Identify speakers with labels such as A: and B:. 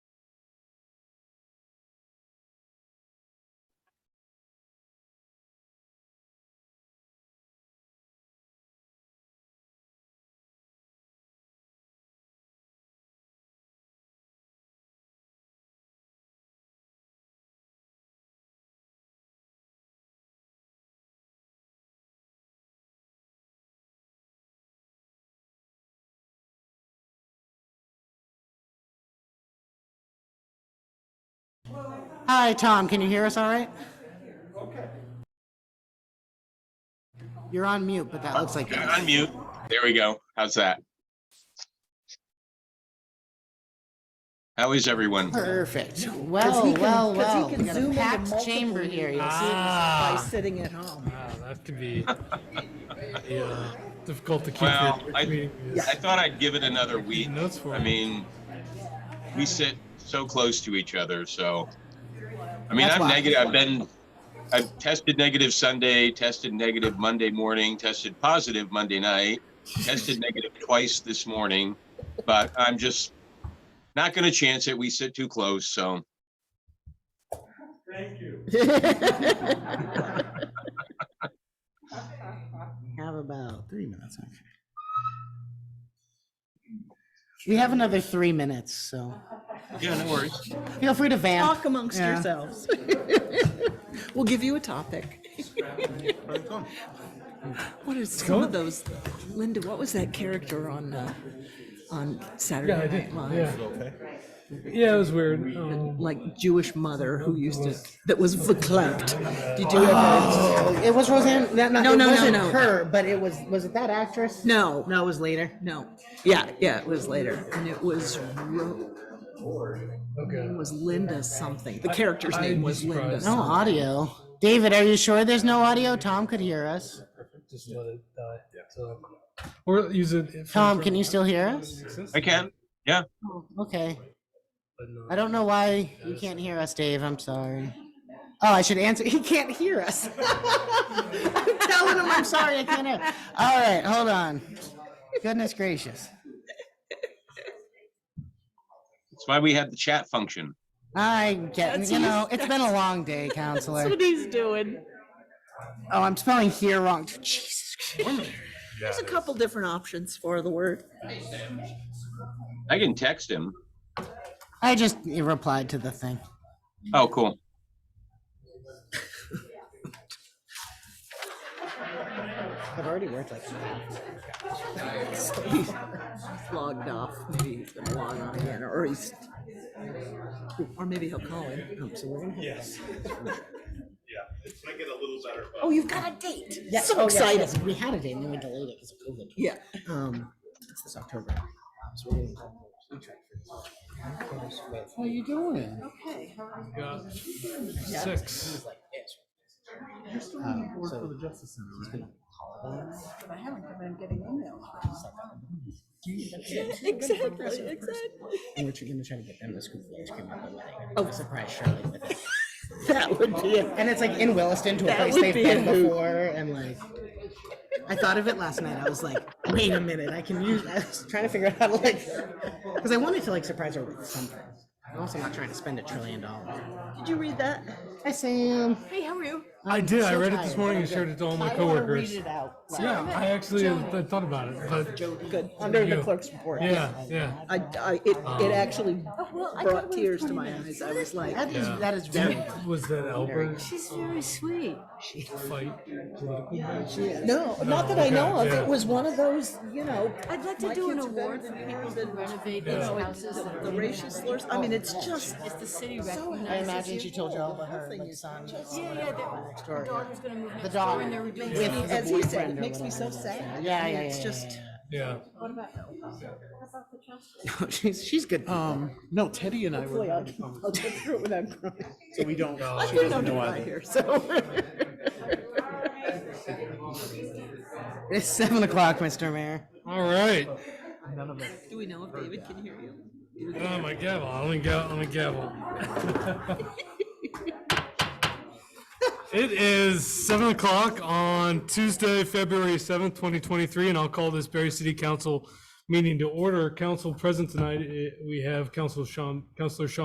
A: Hi, Tom, can you hear us all right? You're on mute, but that looks like.
B: Yeah, Unmute. There we go. How's that? How is everyone?
A: Perfect.
C: Because he
A: Well,
C: can-
A: well,
C: 'cause
A: well.
C: he
A: We
C: can
A: got
C: zoom
A: a
C: into
A: packed
C: multiple
A: chamber here. You'll see it.
C: by
D: Ah,
C: sitting at home.
D: ah, that could be yeah, difficult to keep
B: Well,
D: your
B: I-
D: meeting.
B: I thought I'd give it another week.
D: Notes for
B: I
D: me.
B: mean, we sit so close to each other, so. I mean,
A: That's
B: I'm
A: why.
B: negative. I've been, I've tested negative Sunday, tested negative Monday morning, tested positive Monday night, tested negative twice this morning, but I'm just not going to chance it. We sit too close, so.
C: Uh,
A: Have about three minutes. okay. We have another three minutes, so
B: Yeah, no worries.
A: feel free to vamp.
C: Talk amongst
A: Yeah.
C: yourselves. We'll give you a topic. What are some of those, Linda, what was that character on, uh, on Saturday
D: Yeah, I did.
C: Night Live?
D: Yeah. yeah, it was weird. Um,
C: Like Jewish mother who used to, that was verklempt. Did you
D: Ah.
C: ever?
A: Oh, It was Roseanne. No, no,
C: No,
A: it
C: no, no,
A: wasn't
C: no.
A: her, but it was. Was it that actress?
C: No,
A: no, it was later.
C: no. Yeah, yeah, it was later. And it was, Ro-
D: okay.
C: it was Linda something. The character's name was Linda.
D: surprised.
A: No
C: something.
A: audio. David, are you sure there's no audio? Tom could hear us.
D: Just let it die. So, or use it. if-
A: Tom, can you still hear us?
D: Exists,
B: I can. Yeah.
A: Okay.
D: but no.
A: I don't know why you can't hear us, Dave. I'm sorry. Oh, I should answer. He can't hear us. I'm telling him I'm sorry. I can't hear. All right, hold on. Goodness gracious.
B: That's why we had the chat function.
A: I get, you know, it's been a long day, counselor.
C: That's what he's doing.
A: Oh, I'm spelling here wrong. Jesus.
C: There's a couple different options for the word.
B: I can text him.
A: I just replied to the thing.
B: Oh, cool.
A: I've already worked like
C: He's logged off. Maybe he's gonna log on again, or he's, or maybe he'll call in. Oh, so we're gonna have-
E: It's gonna get a little better, but.
C: Oh, you've got a date.
A: Yeah,
C: So
A: oh, yes,
C: excited.
A: yes, We had a date and then we delayed it because of COVID.
C: Yeah.
A: Um, it's this October. So we're gonna contract for this. How you doing?
D: Yeah. Six.
A: like this. Um, so he's gonna call us.
C: Exactly, exactly.
A: And we're gonna try to get them the scoop of ice cream at the wedding.
C: Oh.
A: surprise Shirley with it.
C: That would be it.
A: And it's like in Williston to a
C: That
A: place
C: would
A: they've
C: be
A: been
C: a hoot.
A: before and like. I thought of it last night. I was like, wait a minute, I can use, I was trying to figure out how to like, because I wanted to like surprise her with something. I'm also not trying to spend a trillion dollars.
C: Did you read that?
A: Hi Sam.
C: Hey, how are you?
D: I
A: I'm
D: did. I
A: so
D: read it
A: tired.
D: this morning and shared it to all my coworkers.
A: out.
D: Yeah, I actually I thought about it, but
C: Good. Under the
D: You.
C: clerk's report.
D: yeah, Um, yeah.
C: I, I, it, it actually brought tears to my eyes. I was like,
A: That is, that is very.
D: That- Was that Albert
F: She's very sweet.
D: fight? Political match?
C: no, not that I know of.
D: Yeah.
C: It was one of those, you know,
F: I'd like
C: My
F: to do an
C: kids are better
F: award for
C: than
F: people
C: yours
F: who
C: and-
F: renovate
D: Yeah.
F: these houses. that
C: the
F: are-
C: racial slurs. I mean, it's just,
F: If the city
A: I
F: recognizes
A: imagine
F: you.
A: she told you all about her like son.
F: Yeah, yeah, the- the daughter's gonna move next
A: daughter.
F: door and they're redoing.
A: With-
F: it.
C: as he said,
A: boyfriend
C: it
A: or
C: makes me so
A: whatever.
C: sad.
A: Yeah,
C: I mean,
A: yeah,
C: It's
A: yeah,
C: just,
D: Yeah.
A: She's, she's good.
G: Um, no, Teddy and I were,
C: hopefully I'll, I'll get through it without crying.
G: so we don't,
D: No.
G: she
C: We
G: doesn't
C: don't do
G: know
C: that
G: either.
C: here, so.
A: It's seven o'clock, Mr. Mayor.
D: All right.
C: Do we know if David can hear you?
D: Oh, my gavel. I'm gonna gavel. I'm gonna gavel. It is seven o'clock on Tuesday, February seventh, twenty twenty-three, and I'll call this Berry City Council meeting to order. Council present tonight, eh, we have Council Sean, Councilor Sean